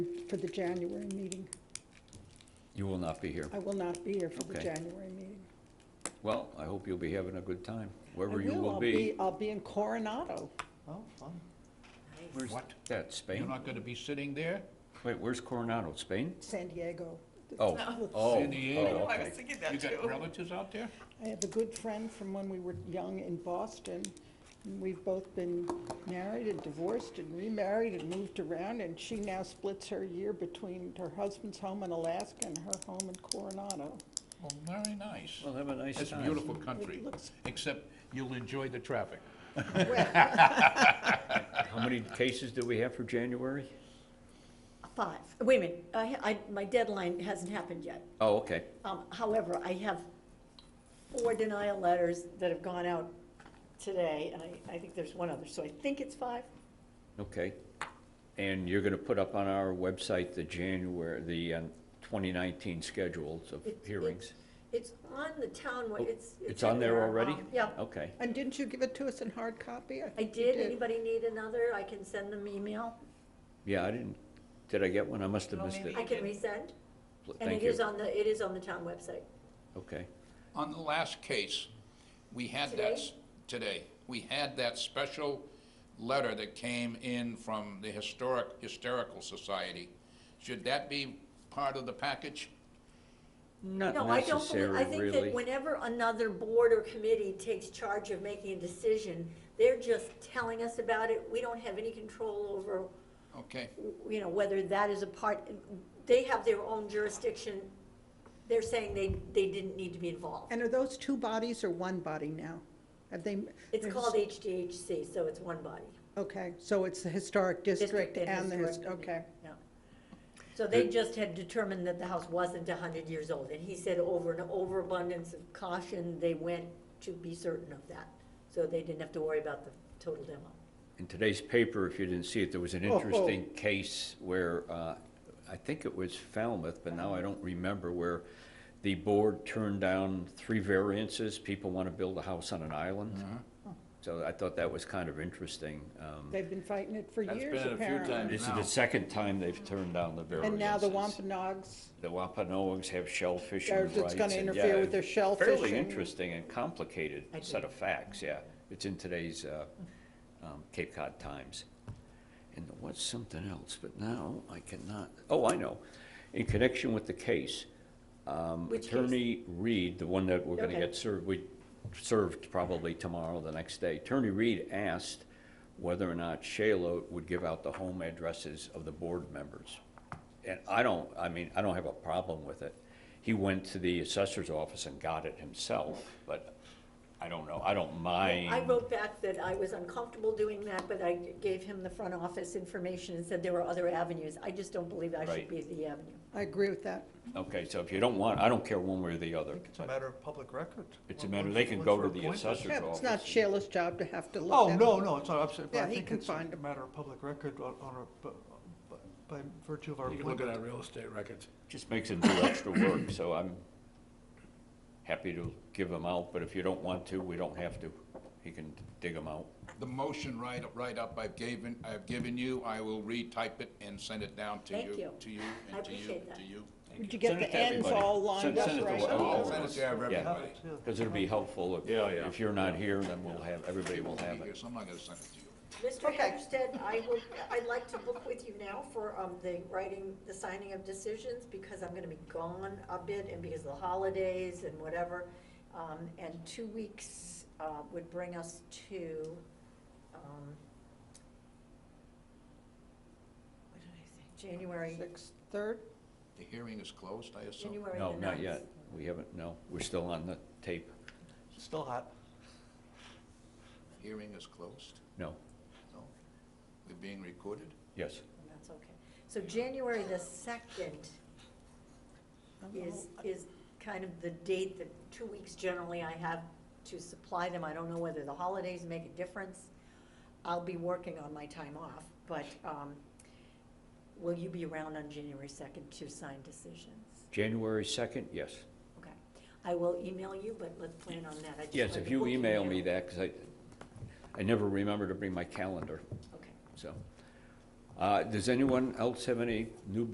for the January meeting. You will not be here. I will not be here for the Okay. January meeting. Well, I hope you'll be having a good time, I wherever you will I'll be. I'll be in Coronado. Oh, fun. Where's What? that, You're Spain? not gonna be sitting there? Wait, where's Coronado, Spain? San Diego. Oh, Let's- oh, oh, San Diego. I was okay. thinking You that got too. relatives out there? oh. I have a good friend from when we were young in Boston. and We've both been married and divorced and remarried and moved around, and she now splits her year between her husband's home in Alaska and her home in Coronado. Well, Oh, very nice. Well, have a nice It's a time. beautiful country, It looks- except you'll enjoy the traffic. Well, How many cases do we have for January? Five, wait a minute, I, ha- I, my deadline hasn't happened yet. Oh, okay. Um, however, I have four denial letters that have gone out today, and I, I think there's one other, so I think it's five. Okay. And you're going to put up on our website the January, the um, 2019 schedules of It's- hearings? It's on the town, wa- Oh, it's. It's on there in our, already? Oh. um, Yeah, Okay. And didn't you give it to us in hard copy? I think you did, anybody need another, I can send them email, Yeah, I didn't, did I get one? I must have No, missed it. maybe I can did. resend. Pl- And Thank it is you. on the, it is on the town website. Okay. On the last case, we had that, s- today, we had that special letter that came in from the Historic, Hysterical Society. Should that be part of the package? Not No, I don't believe, I necessary, think that really. whenever another board or committee takes charge of making a decision, they're just telling us about it. We don't have any control over, Okay, you know, whether that is a part, they have their own jurisdiction. They're saying they, they didn't need to be involved. And are those two bodies or one body now? Have they? It's there's- called HDHC, so it's one body. Okay, so it's the historic district and the, his- historic committee, okay. yeah. So they The- just had determined that the house wasn't a hundred years old, and he said over an overabundance of caution, they went to be certain of that. So they didn't have to worry about the total demo. In today's paper, if you didn't see it, there was an Oh, oh. interesting case where, uh, I think it was Falmouth, but now I don't remember, where the board turned down three variances. People want to build a house on an island. Mm-hmm. So I thought that was kind of interesting. Um, They've been fighting it for That's years, been it a few apparently. times. This is the Now- second time they've turned down the variances. And now the Wampanoags The Wampanoags have shellfish Or rights. it's gonna and, interfere yeah, with their shellfish Fairly and- interesting and complicated I set do. of facts, yeah. It's in today's uh, um, Cape Cod Times. And there was something else, but now I cannot, oh, I know. In connection with the case, um, Which case? Attorney Reed, the one that we're going to Okay. get served, we served probably tomorrow, the next day. Attorney Reed asked whether or not Shayla would give out the home addresses of the board members. And I don't, I mean, I don't have a problem with it. He went to the assessor's office and got it himself, but I don't know, I don't mind. I wrote back that I was uncomfortable doing that, but I gave him the front office information and said there were other avenues. I just don't believe I Right. should be the avenue. I agree with that. Okay, so if you don't want, I don't care one way or the other. It's a matter of public record. It's a matter, they can go to the assessor's Yeah, office. but it's not Shayla's job to have to look Oh, at no, no, it's not, I'm saying, but Yeah, I he think can it's find a 'em. matter of public record on, on a, bu- bu- by virtue of our You can look at appointment. our real estate records. Just makes it do extra work, so I'm happy to give them out, but if you don't want to, we don't have to. He can dig them out. the motion right, right up I've given, I've given you, I will retype it and send it down to you. Thank you. To you, I and to you, appreciate that. to you. Did you get Send it the to ends everybody. all lined Send- up send it to right? all- Okay. all I'll of send it us. to everybody. Yeah. Because it'll be helpful if, Yeah, yeah. if you're not here, then we'll have, everybody will have Here, it. so I'm not gonna send it to you. Mr. Hempstead, I will, I'd like to book with you now for um, the writing, the signing of decisions, because I'm gonna be gone a bit, and because of the holidays and whatever. Um, And two weeks uh, would bring us to, um, what did I say, January, Sixth, third? The hearing is closed, I assume? January the No, not ninth. yet. We haven't, no, we're still on the tape. Still hot. Hearing is closed? No, No? We're being recorded? yes. That's okay. So January the second is, is kind of the date that, two weeks generally I have to supply them. I don't know whether the holidays make a difference. I'll be working on my time off, but, um, will you be around on January second to sign decisions? January second, yes. Okay. I will email you, but let's plan on that. I just Yes, wanted if to you book email now. me that, because I, I never remember to bring my calendar, Okay. so. Uh, does anyone else have any new